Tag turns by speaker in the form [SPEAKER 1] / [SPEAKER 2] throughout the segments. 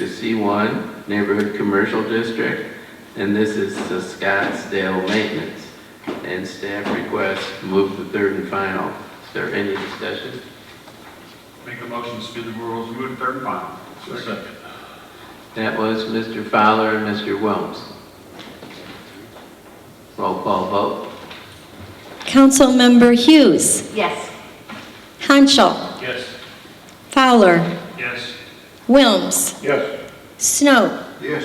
[SPEAKER 1] is C1, Neighborhood Commercial District, and this is the Scottsdale Maintenance. And staff requests move to third and final. Is there any discussion?
[SPEAKER 2] Make a motion to suspend the rules, move to third and final. Second.
[SPEAKER 1] That was Mr. Fowler and Mr. Wilms. Roll call vote.
[SPEAKER 3] Councilmember Hughes,
[SPEAKER 4] Yes.
[SPEAKER 3] Hanschel,
[SPEAKER 2] Yes.
[SPEAKER 3] Fowler,
[SPEAKER 2] Yes.
[SPEAKER 3] Wilms,
[SPEAKER 2] Yes.
[SPEAKER 3] Snow.
[SPEAKER 2] Yes.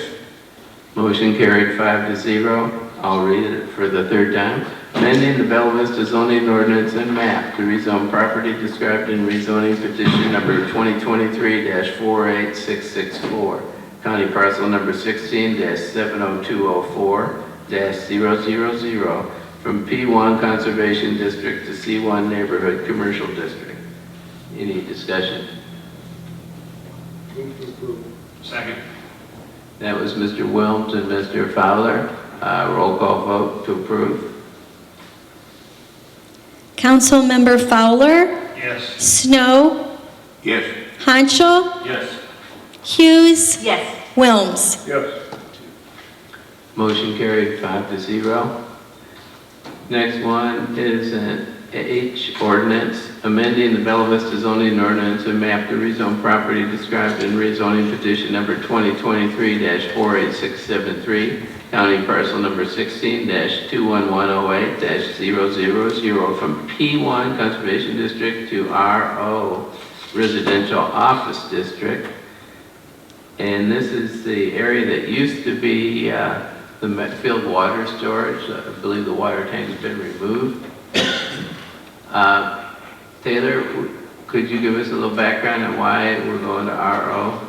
[SPEAKER 1] Motion carried five to zero. I'll read it for the third time. Amending the Bella Vista zoning ordinance and map to rezone property described in rezoning petition number 2023-48664, county parcel number 16-70204-000 from P1 Conservation District to C1 Neighborhood Commercial District. Any discussion?
[SPEAKER 2] Second.
[SPEAKER 1] That was Mr. Wilms and Mr. Fowler. Uh, Roll call vote to approve.
[SPEAKER 3] Councilmember Fowler,
[SPEAKER 2] Yes.
[SPEAKER 3] Snow,
[SPEAKER 2] Yes.
[SPEAKER 3] Hanschel,
[SPEAKER 2] Yes.
[SPEAKER 3] Hughes,
[SPEAKER 4] Yes.
[SPEAKER 3] Wilms.
[SPEAKER 2] Yes.
[SPEAKER 1] Motion carried five to zero. Next one is an H ordinance, amending the Bella Vista zoning ordinance and map to rezone property described in rezoning petition number 2023-48673, county parcel number 16-21108-000 from P1 Conservation District to RO Residential Office District. And this is the area that used to be uh, the Metfield water storage. I believe the water tank's been removed. Uh, Taylor, w- could you give us a little background on why we're going to RO?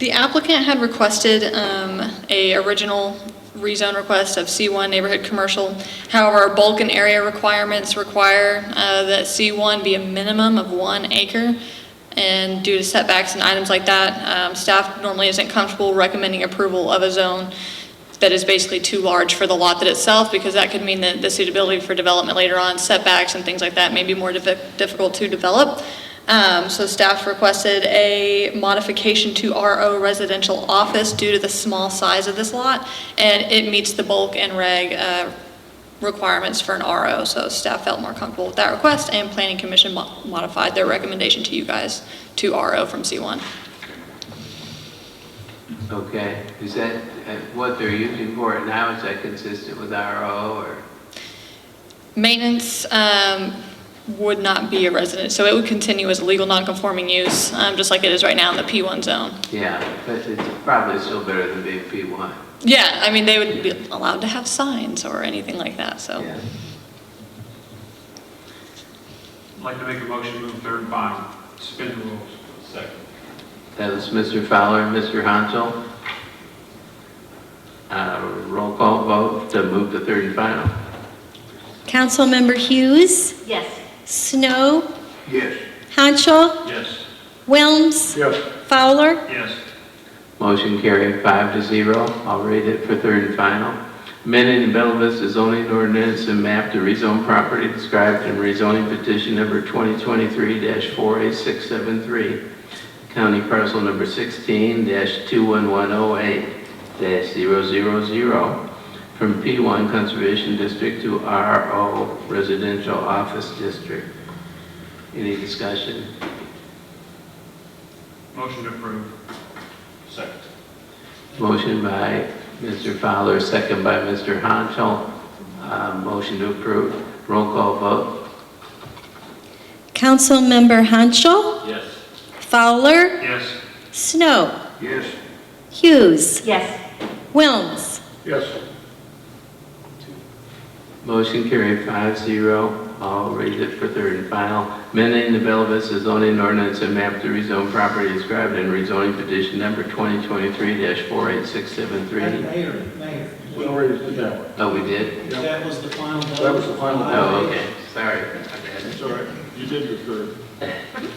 [SPEAKER 5] The applicant had requested um, a original rezone request of C1 neighborhood commercial. However, our bulk and area requirements require uh, that C1 be a minimum of one acre. And due to setbacks and items like that, um, staff normally isn't comfortable recommending approval of a zone that is basically too large for the lot that itself, because that could mean that the suitability for development later on, setbacks and things like that, may be more diffi- difficult to develop. Um, So staff requested a modification to RO residential office due to the small size of this lot, and it meets the bulk and reg uh, requirements for an RO, so staff felt more comfortable with that request, and Planning Commission mo- modified their recommendation to you guys to RO from C1.
[SPEAKER 1] Okay, is that uh, what they're using for it now? Is that consistent with RO or?
[SPEAKER 5] Maintenance um, would not be a resident, so it would continue as a legal non-conforming use, um, just like it is right now in the P1 zone.
[SPEAKER 1] Yeah, but it's probably still better than being P1.
[SPEAKER 5] Yeah, I mean, they would be allowed to have signs or anything like that, so.
[SPEAKER 1] Yeah.
[SPEAKER 2] I'd like to make a motion to move third and final, suspend the rules. Second.
[SPEAKER 1] That was Mr. Fowler and Mr. Hansel. Uh, Roll call vote to move to third and final.
[SPEAKER 3] Councilmember Hughes,
[SPEAKER 4] Yes.
[SPEAKER 3] Snow,
[SPEAKER 2] Yes.
[SPEAKER 3] Hanschel,
[SPEAKER 2] Yes.
[SPEAKER 3] Wilms,
[SPEAKER 2] Yes.
[SPEAKER 3] Fowler,
[SPEAKER 2] Yes.
[SPEAKER 1] Motion carried five to zero. I'll read it for third and final. Amending the Bella Vista zoning ordinance and map to rezone property described in rezoning petition number 2023-48673, county parcel number oh 16-21108-000, from P1 Conservation District to RO Residential Office District. Any discussion?
[SPEAKER 2] Motion to approve. Second.
[SPEAKER 1] Motion by Mr. Fowler, second by Mr. Hanchel. Uh, Motion to approve. Roll call vote.
[SPEAKER 3] Councilmember Hanschel,
[SPEAKER 2] Yes.
[SPEAKER 3] Fowler,
[SPEAKER 2] Yes.
[SPEAKER 3] Snow,
[SPEAKER 2] Yes.
[SPEAKER 3] Hughes,
[SPEAKER 4] Yes.
[SPEAKER 3] Wilms.
[SPEAKER 2] Yes.
[SPEAKER 1] Motion carried five zero. I'll read it for third and final. Amending the Bella Vista zoning ordinance and map to rezone property described in rezoning petition number 2023-48673.
[SPEAKER 6] Mayor, Mayor,
[SPEAKER 7] We already did that one.
[SPEAKER 1] Oh, we did?
[SPEAKER 6] that was the final vote.
[SPEAKER 7] That was the final vote.
[SPEAKER 1] Oh, okay. Sorry. My bad.
[SPEAKER 7] That's all right. You did your third. You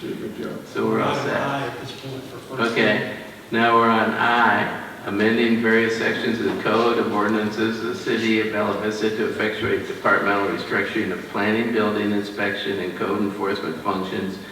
[SPEAKER 7] did a good job.
[SPEAKER 1] So we're all set.
[SPEAKER 6] Aye at this point for first.
[SPEAKER 1] Okay, now we're on I, amending various sections of the code of ordinances of the city of Bella Vista to effectuate departmental restructuring of planning, building inspection, and code enforcement functions